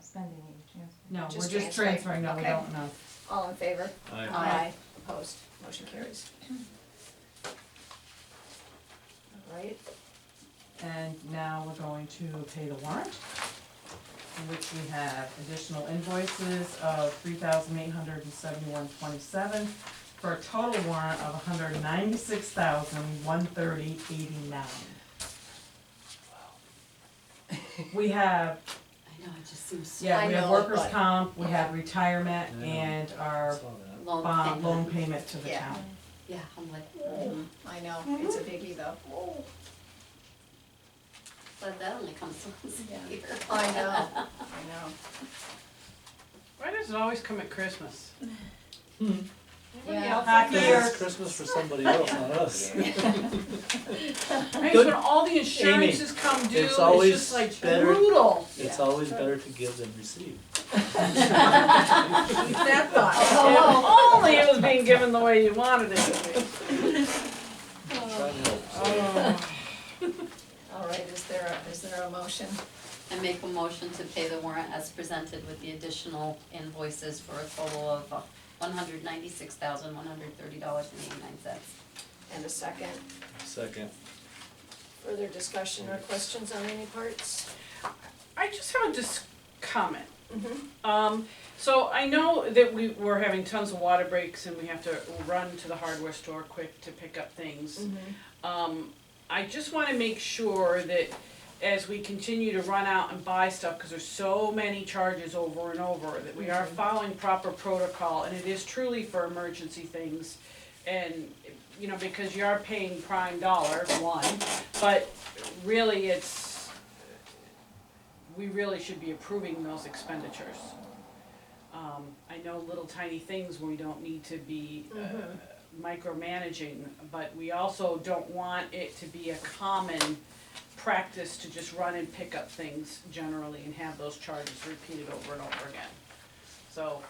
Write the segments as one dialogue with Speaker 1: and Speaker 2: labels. Speaker 1: spending any transfer.
Speaker 2: No, we're
Speaker 3: Just
Speaker 2: just transferring,
Speaker 3: transferring,
Speaker 2: no, we
Speaker 3: okay.
Speaker 2: don't know.
Speaker 3: All in favor?
Speaker 4: Aye.
Speaker 2: Aye.
Speaker 3: Opposed, motion carries. All right,
Speaker 2: And now we're going to pay the warrant, in which we have additional invoices of three thousand eight hundred and seventy-one twenty-seven for a total warrant of one hundred ninety-six thousand one thirty eighty-nine. We have,
Speaker 5: I know, it just seems
Speaker 2: yeah, we
Speaker 3: I
Speaker 2: have
Speaker 3: know,
Speaker 2: workers'
Speaker 3: but-
Speaker 2: comp, we have retirement,
Speaker 4: I know.
Speaker 2: and our
Speaker 4: Saw that.
Speaker 5: long.
Speaker 2: bond
Speaker 6: Uh,
Speaker 5: thing.
Speaker 2: loan payment to the
Speaker 3: Yeah.
Speaker 2: town.
Speaker 5: Yeah, I'm like,
Speaker 3: I know, it's a biggie though.
Speaker 5: but that only comes once
Speaker 3: Yeah.
Speaker 5: a year.
Speaker 3: I know, I know.
Speaker 6: Why does it always come at Christmas? Anybody
Speaker 3: Yeah.
Speaker 6: else
Speaker 2: Happy
Speaker 6: like
Speaker 2: Here.
Speaker 6: that?
Speaker 2: year.
Speaker 4: It's Christmas for somebody else, not us.
Speaker 6: Right,
Speaker 4: Good.
Speaker 6: when all the insurances come due,
Speaker 4: it's
Speaker 6: it's
Speaker 4: always
Speaker 6: just like
Speaker 4: better-
Speaker 6: brutal.
Speaker 4: It's always better to give than receive.
Speaker 6: Keep that thought.
Speaker 5: Oh.
Speaker 6: If Only it was being given the way you wanted it to be.
Speaker 4: Try and help, so-
Speaker 2: Oh.
Speaker 6: Oh.
Speaker 3: All right, is there, a- is there a motion?
Speaker 5: I make a motion to pay the warrant as presented with the additional invoices for a total of uh, one hundred ninety-six thousand, one hundred thirty dollars and eighty-nine cents.
Speaker 3: And a second?
Speaker 4: Second.
Speaker 3: Further discussion or questions on any parts?
Speaker 6: I just have a dis- comment.
Speaker 3: Mhm.
Speaker 6: Um, so I know that we, we're having tons of water breaks and we have to run to the hardware store quick to pick up things.
Speaker 3: Mm-hmm.
Speaker 6: Um, I just wanna make sure that as we continue to run out and buy stuff, cause there's so many charges over and over, that we are following proper protocol, and it is truly for emergency things. And, you know, because you are paying prime dollar, one, but really it's, we really should be approving those expenditures. Um, I know little tiny things we don't need to be, uh,
Speaker 3: Mhm.
Speaker 6: micromanaging, but we also don't want it to be a common practice to just run and pick up things generally and have those charges repeated over and over again. So,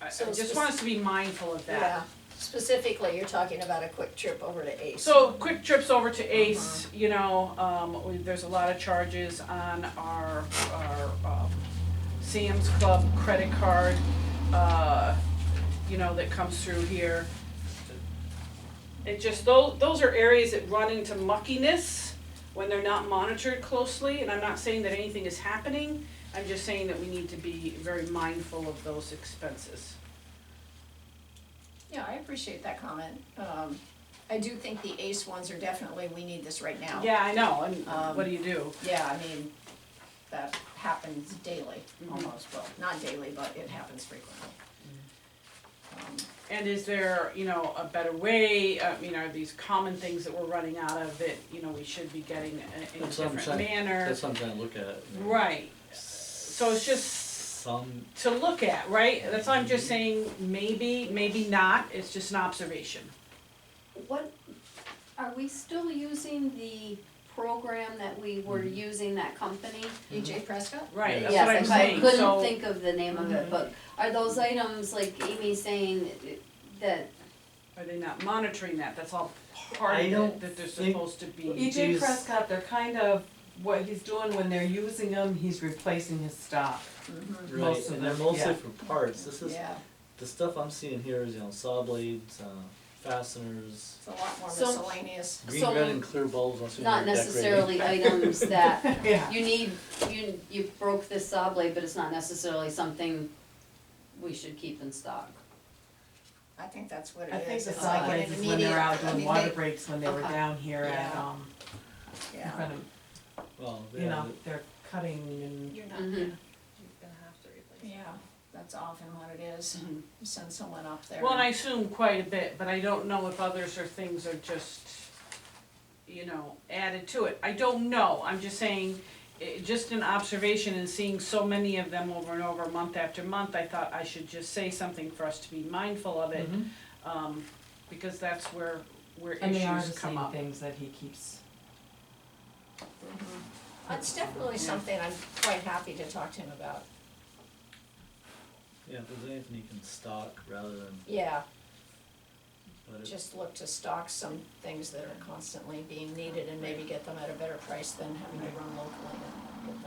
Speaker 6: I, I
Speaker 3: So
Speaker 6: just want us to be mindful of that.
Speaker 3: Yeah, specifically, you're talking about a quick trip over to Ace.
Speaker 6: So quick trips over to Ace, you know, um, we- there's a lot of charges on our, our, um, Sam's Club credit card, uh, you know, that comes through here. It just, those, those are areas that run into muckiness when they're not monitored closely, and I'm not saying that anything is happening, I'm just saying that we need to be very mindful of those expenses.
Speaker 3: Yeah, I appreciate that comment. Um, I do think the Ace ones are definitely, we need this right now.
Speaker 6: Yeah, I know, and
Speaker 3: Oh. Um,
Speaker 6: what do you do?
Speaker 3: Yeah, I mean, that happens daily,
Speaker 2: Mm-hmm.
Speaker 6: Mhm.
Speaker 3: almost, well, not daily, but it happens frequently. Um,
Speaker 6: And is there, you know, a better way, I mean, are these common things that we're running out of that, you know, we should be getting in in a
Speaker 4: That's what I'm
Speaker 6: different
Speaker 4: saying.
Speaker 6: manner?
Speaker 4: That's what I'm trying to look at.
Speaker 6: Right, so it's just
Speaker 4: Some,
Speaker 6: to look at, right? That's why I'm just saying, maybe, maybe not, it's just an observation.
Speaker 7: What, are we still using the program that we were using, that company?
Speaker 3: EJ E Prescott?
Speaker 6: Right, Mm-hmm. that's
Speaker 5: Yes,
Speaker 6: what I'm
Speaker 5: if I
Speaker 6: saying,
Speaker 5: couldn't
Speaker 6: so, Mm-hmm.
Speaker 7: think-
Speaker 5: think of the name of it, but are those items, like Amy's saying, that,
Speaker 6: are they not monitoring that? That's all part
Speaker 4: I
Speaker 6: of
Speaker 4: don't
Speaker 6: it, that they're
Speaker 4: think-
Speaker 6: supposed to be.
Speaker 2: EJ
Speaker 4: These-
Speaker 2: E Prescott, they're kind of, what he's doing when they're using him, he's replacing his stock.
Speaker 4: right,
Speaker 2: Most of
Speaker 4: and they're
Speaker 2: them,
Speaker 4: mostly
Speaker 2: yeah.
Speaker 4: for parts. This is,
Speaker 3: Mm-hmm. Yeah,
Speaker 4: the stuff I'm seeing here is, you know, saw blades, uh, fasteners,
Speaker 3: it's a lot more
Speaker 5: So-
Speaker 3: miscellaneous.
Speaker 4: green,
Speaker 5: So,
Speaker 4: red and clear bulbs, I'm assuming
Speaker 5: not
Speaker 4: they're decorating.
Speaker 5: necessarily items that
Speaker 2: Yeah.
Speaker 5: You need, you, you broke this saw blade, but it's not necessarily something we should keep in stock.
Speaker 3: I think that's what it
Speaker 2: I think
Speaker 3: is.
Speaker 2: the
Speaker 3: It's like an
Speaker 2: sideways is when they're
Speaker 3: immediate-
Speaker 2: out
Speaker 3: I
Speaker 2: doing
Speaker 3: mean,
Speaker 2: water
Speaker 3: they-
Speaker 2: breaks, when they were
Speaker 5: Okay.
Speaker 2: down here at,
Speaker 3: Yeah.
Speaker 2: um, in
Speaker 3: Yeah,
Speaker 2: front of,
Speaker 4: Well,
Speaker 2: you
Speaker 4: yeah,
Speaker 2: know, they're cutting and,
Speaker 3: you're not,
Speaker 5: Mm-hmm.
Speaker 3: yeah, that's often what it is.
Speaker 2: Mm-hmm.
Speaker 6: Mhm.
Speaker 3: You Send someone up there.
Speaker 6: Well, and I assume quite a bit, but I don't know if others or things are just, you know, added to it. I don't know, I'm just saying, eh, just an observation and seeing so many of them over and over, month after month, I thought I should just say something for us to be mindful of it.
Speaker 2: Mhm.
Speaker 6: Um, because that's where, where
Speaker 2: and they are the
Speaker 6: issues come
Speaker 2: same
Speaker 6: up.
Speaker 2: things that he keeps.
Speaker 3: Mhm. It's definitely something I'm quite happy to talk to him about.
Speaker 4: yeah, if there's anything you can stock rather than,
Speaker 3: Yeah,
Speaker 4: but it,
Speaker 3: just look to stock some things that are constantly being needed and maybe get them at a better price than having to run locally.